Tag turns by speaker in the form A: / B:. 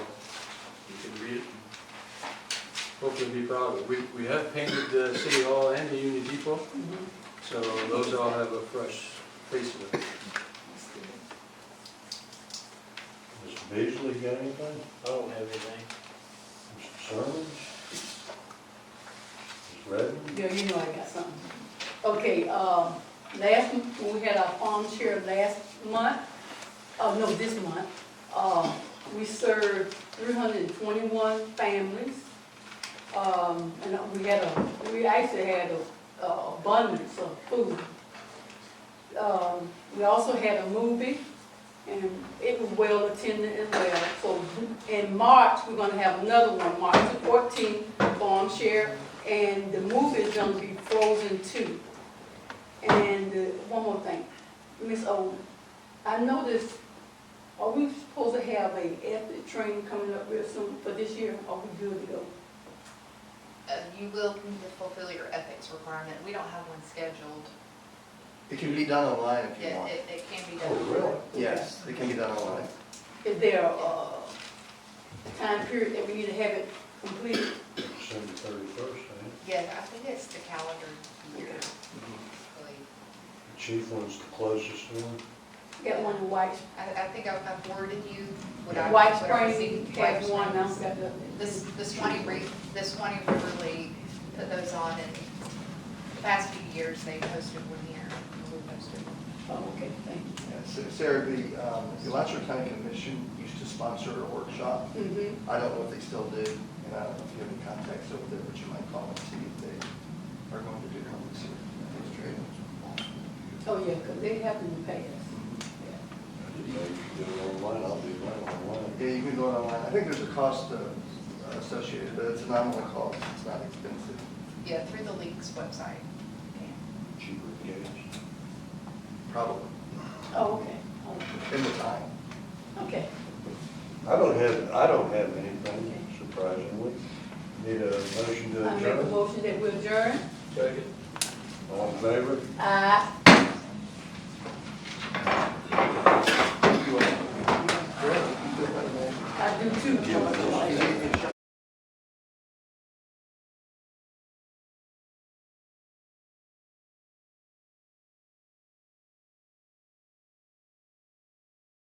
A: hopefully be proud of. We, we have painted the city hall and the Union Depot,
B: Mm-hmm.
A: so those all have a fresh face of it.
C: Mr. Beasley got anything?
D: I don't have anything.
C: Mr. Sermons? Ms. Redden?
B: Yeah, you know I got something. Okay, um, last, m- when we had our farm share last month, oh, no, this month, um, we served three hundred and twenty-one families. Um, and we had a, we actually had a a abundance of food. Um, we also had a movie, and it was well attended as well. So in March, we're gonna have another one, March the fourteenth, farm share, and the movie is gonna be Frozen Two. And uh, one more thing, Miss O, I noticed, are we supposed to have a ethnic train coming up real soon for this year? Are we good to go?
E: Uh, you will need to fulfill your ethics requirement. We don't have one scheduled.
F: It can be done online if you
E: It,
F: want.
E: it, it can be
C: Oh,
E: done.
C: really?
F: Yes, it can be done online.
B: Is there a time period that we need to have it completed?
C: December thirty-first, ain't
E: Yeah, I think it's the calendar year. really.
C: it? The chief one's the closest one.
B: Got one in White,
E: I, I think I've I've worded you what I.
B: White
E: what I
B: Springs,
E: received.
B: had one, now got the.
E: This, this Swanee Re, the Swanee River League put those on and the past few years they hosted one here. We hosted one.
B: Oh, okay, thank you.
F: Yeah, Sa- Sarah, the um, the Alachua County Commission used to sponsor a workshop.
B: Mhm.
F: I don't know if they still do, and I don't know if you have any contacts over there, but you might call and see if they are going to do one this year. That's great.
B: Oh, yeah, because they have in the past. Yeah.
C: I didn't know you could do it online, I'll do that online.
F: Yeah, you can go online. I think there's a cost uh, associated, but it's a nominal cost. It's not expensive.
E: Yeah, through the league's website. Yeah.
C: Cheaper than gas.
F: Probably,
B: Oh, okay, okay,
F: in the time.
B: okay.
C: I don't have, I don't have anything surprisingly. Need a motion to
B: I make a
C: adjourn?
B: motion that we adjourn.
A: Second?
C: All in favor?
B: Aye.